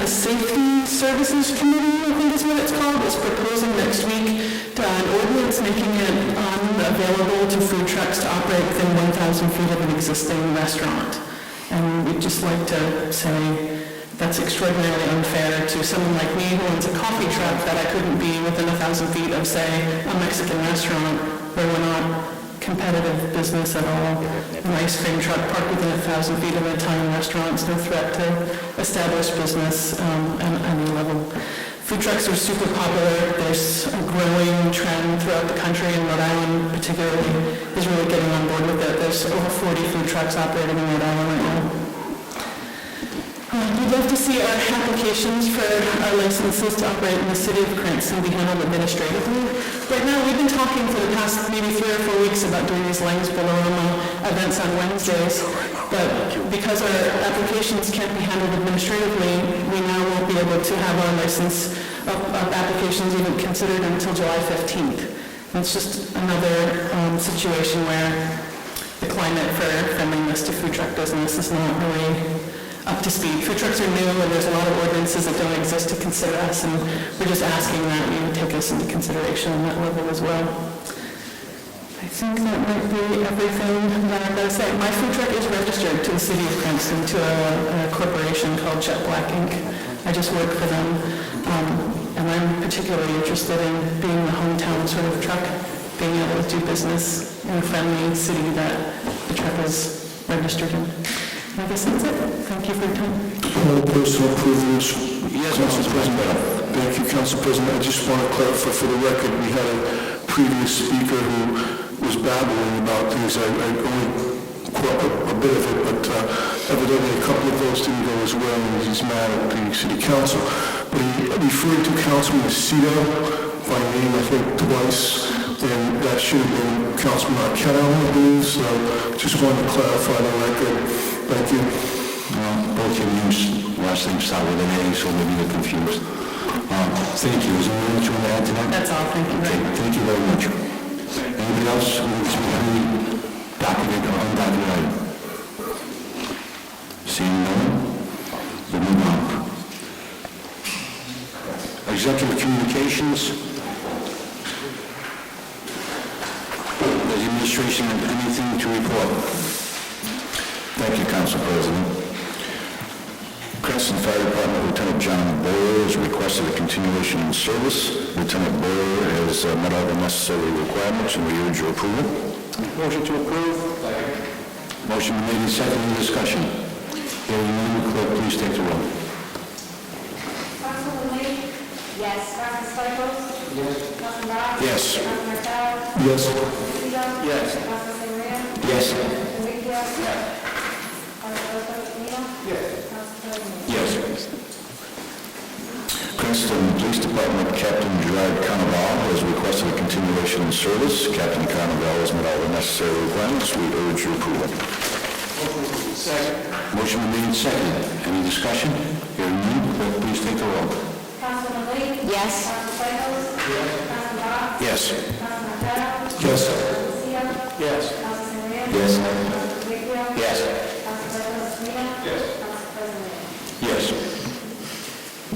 the Safety Services Committee, I think is what it's called, is proposing next week uh, an ordinance making it um, available to food trucks to operate within 1,000 feet of an existing restaurant. And we'd just like to say that's extraordinarily unfair to someone like me who owns a coffee truck that I couldn't be within 1,000 feet of, say, a Mexican restaurant where we're not competitive business at all. An ice cream truck parked within a thousand feet of an Italian restaurant is no threat to established business um, at any level. Food trucks are super popular. There's a growing trend throughout the country, and Rhode Island particularly is really getting on board with it. There's over 40 food trucks operating in Rhode Island right now. Uh, We'd love to see our applications for our licenses to operate in the city of Cranston be handled administratively. Right now, we've been talking for the past maybe three or four weeks about doing these Langs Bolorama events on Wednesdays, but because our applications can't be handled administratively, we now won't be able to have our license of of applications even considered until July 15th. And It's just another um, situation where the climate for friendliness to food truck business is not really up to speed. Food trucks are new, and there's a lot of ordinances that don't exist to consider us, and we're just asking that you take us into consideration on that level as well. I think that might be everything that I'm going to say. My food truck is registered to the city of Princeton, to a a corporation called Jet Black Inc. I just work for them, um, and I'm particularly interested in being the hometown sort of truck, being able to do business in a friendly city that the truck is registered in. And I guess that's it. Thank you for your time. All opposed to approving this? Yes, Council President. Thank you, Council President. I just want to clarify for the record, we had a previous speaker who was babbling about things. I I only caught a a bit of it, but uh, evidently a couple of those didn't go as well, and he's mad at the city council. But he referred to Councilman Aceto by name, I think, twice, and that should have been Councilman Arquette, I believe, so just wanted to clarify the record. Thank you. Well, both your names, last names start with an A, so maybe you're confused. Um, Thank you. Is there anything you want to add to that? That's all. Thank you very Okay, much. Thank you very much. Anybody else who wants to be heard, documented or undocumented? Seeing none, we'll move on. Executive communications. Does the administration have anything to report? Thank you, Council President. Cranston Fire Department Lieutenant John Boyer has requested a continuation in service. Lieutenant Boyer has uh, met all the necessary requirements, and we urge your approval. Motion to approve. Motion been made and seconded, Any discussion. Hearing none, clerk, please take the roll. Councilman Lee? Yes. Councilman Stichels? Yes. Councilman Rob? Yes. Councilman Martell? Yes. Councilman Yes. Councilman Sangreal? Yes. Councilman Wakefield? Yes. Councilman Ospina? Yes. Councilman Lee? Yes. Princeton Police Department Captain Gerard Carnaval has requested a continuation in service. Captain Carnaval has met all the necessary requirements. We urge your approval. Motion been made and seconded. Any discussion? Hearing none, clerk, please take the roll. Councilman Lee? Yes. Councilman Stichels? Yes. Councilman Rob? Yes. Councilman Martell? Yes. Councilman Lucia? Yes. Councilman Sangreal? Yes. Councilman Wakefield? Yes. Councilman Ospina? Yes. Councilman President? Yes.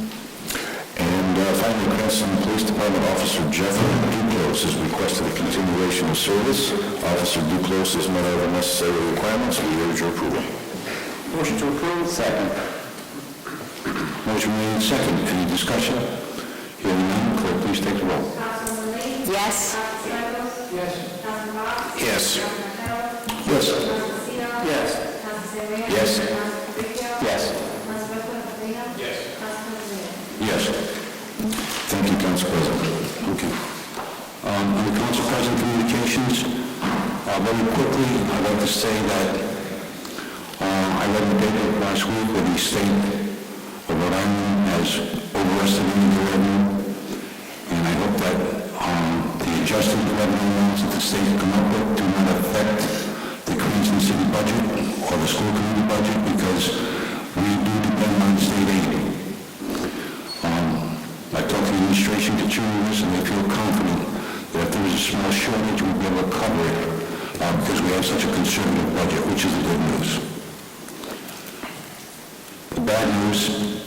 And uh, finally, Cranston Police Department Officer Jeffrey Duclos has requested a continuation of service. Officer Duclos has met all the necessary requirements. We urge your approval. Motion to approve. Second. Motion made and second. Any discussion? Hearing none, clerk, please take the roll. Councilman Lee? Yes. Councilman Stichels? Yes. Councilman Rob? Yes. Councilman Yes. Martell? Yes. Yes. Yes. Yes. Yes. Thank you, Council President. Okay. Um, Under Council President Communications, uh, very quickly, I'd like to say that uh, I read in the paper last week where the state of Rhode Island has overestimated the revenue, and I hope that um, the adjusted revenue amounts that the state come up with do not affect the Queensland City budget or the school community budget, because we do depend on state aid. Um, I talked to the administration, the juniors, and they feel confident that if there is a small shortage, we'll be able to cover it uh, because we have such a conservative budget, which is the good news. The bad news